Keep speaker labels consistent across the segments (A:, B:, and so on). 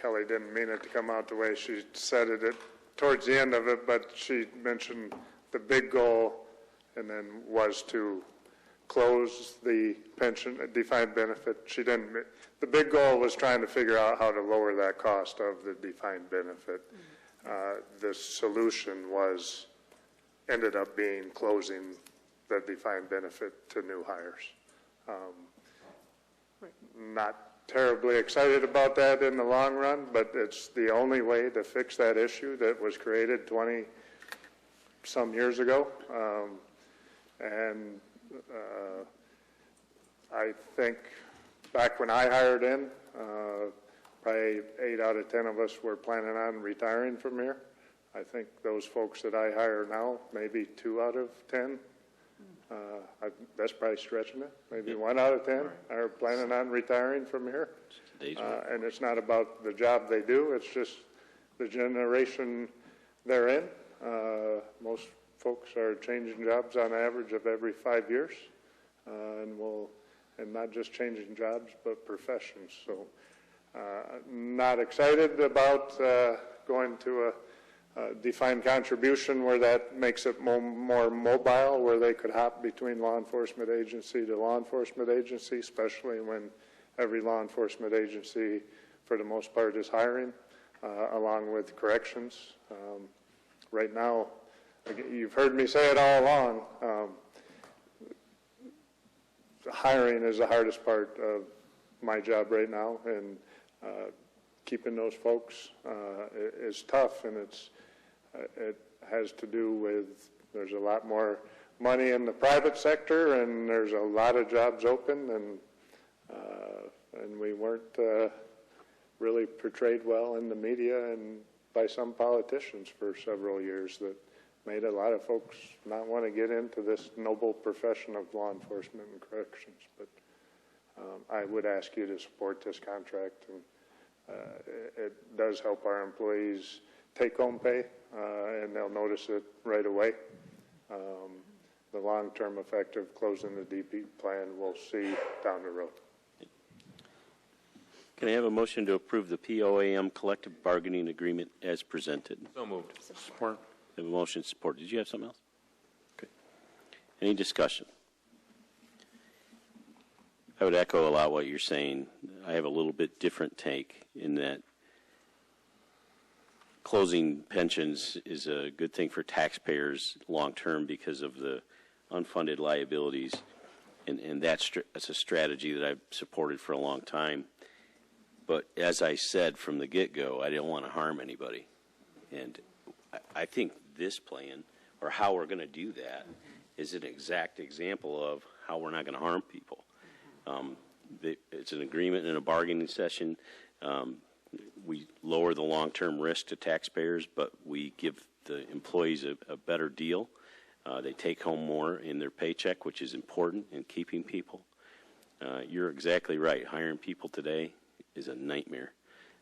A: Kelly didn't mean it to come out the way she said it at- towards the end of it, but she mentioned the big goal and then was to close the pension, defined benefit. She didn't, ma- the big goal was trying to figure out how to lower that cost of the defined benefit. Uh, The solution was, ended up being closing the defined benefit to new hires not terribly excited about that in the long run, but it's the only way to fix that issue that was created 20-some years ago. Um, And uh, I think back when I hired in, uh, probably eight out of 10 of us were planning on retiring from here. I think those folks that I hire now, maybe two out of 10 uh, I- That's probably stretching it. Maybe one out of 10 are planning on retiring from here.
B: Days
A: Uh,
B: work.
A: And it's not about the job they do, it's just the generation they're in. Uh, Most folks are changing jobs on average of every five years, uh, and will, and not just changing jobs, but professions. So uh, not excited about uh, going to a uh, defined contribution where that makes it mo- more mobile, where they could hop between law enforcement agency to law enforcement agency, especially when every law enforcement agency, for the most part, is hiring, uh, along with corrections. Um, Right now, again, you've heard me say it all along, um, hiring is the hardest part of my job right now, and uh, keeping those folks uh, i- is tough, and it's, uh, it has to do with, there's a lot more money in the private sector, and there's a lot of jobs open, and, uh, and we weren't uh, really portrayed well in the media and by some politicians for several years that made a lot of folks not want to get into this noble profession of law enforcement and corrections. But um, I would ask you to support this contract, and uh, it- it does help our employees take home pay, uh, and they'll notice it right away. Um, The long-term effect of closing the DP plan, we'll see down the road.
B: Can I have a motion to approve the POAM collective bargaining agreement as presented?
C: So moved.
B: I have a motion support. Did you have something else? Okay. Any discussion? I would echo a lot what you're saying. I have a little bit different take in that closing pensions is a good thing for taxpayers long-term because of the unfunded liabilities. And, and that's, str- that's a strategy that I've supported for a long time. But as I said from the get-go, I didn't want to harm anybody. And I- I think this plan, or how we're going to do that, is an exact example of how we're not going to harm people. Um, the- It's an agreement and a bargaining session. Um, We lower the long-term risk to taxpayers, but we give the employees a a better deal. Uh, They take home more in their paycheck, which is important in keeping people. Uh, You're exactly right. Hiring people today is a nightmare.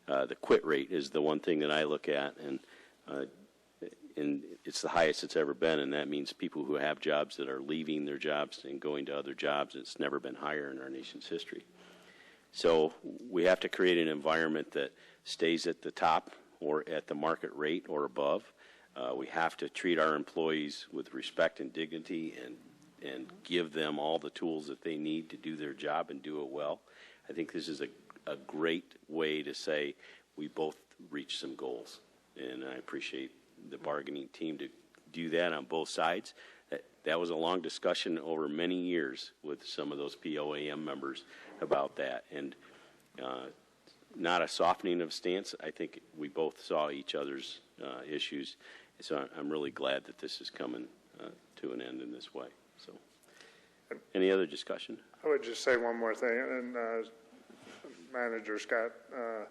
B: Uh, The quit rate is the one thing that I look at, and uh, and it's the highest it's ever been, and that means people who have jobs that are leaving their jobs and going to other jobs. It's never been higher in our nation's history. So we have to create an environment that stays at the top or at the market rate or above. Uh, we have to treat our employees with respect and dignity and and give them all the tools that they need to do their job and do it well. I think this is a, a great way to say we both reach some goals. And I appreciate the bargaining team to do that on both sides. That, that was a long discussion over many years with some of those POAM members about that. And uh, not a softening of stance. I think we both saw each other's uh, issues. So I- I'm really glad that this is coming uh, to an end in this way. So, any other discussion?
A: I would just say one more thing, and uh, Manager Scott uh,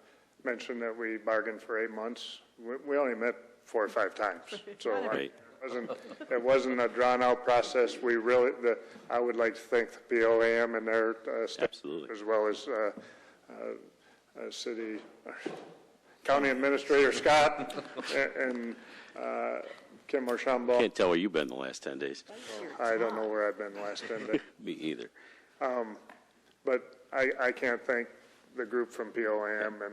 A: mentioned that we bargained for eight months. We- We only met four or five times, so I-
B: Right.
A: it wasn't, it wasn't a drawn-out process. We really, the, I would like to thank the BOAM and their uh, staff,
B: Absolutely.
A: as well as uh, uh, uh, City, County Administrator Scott a- and uh, Kim Marshambo.
B: Can't tell where you've been the last 10 days.
A: I don't know where I've been the last 10 days.
B: Me either.
A: But I, I can't thank the group from POAM and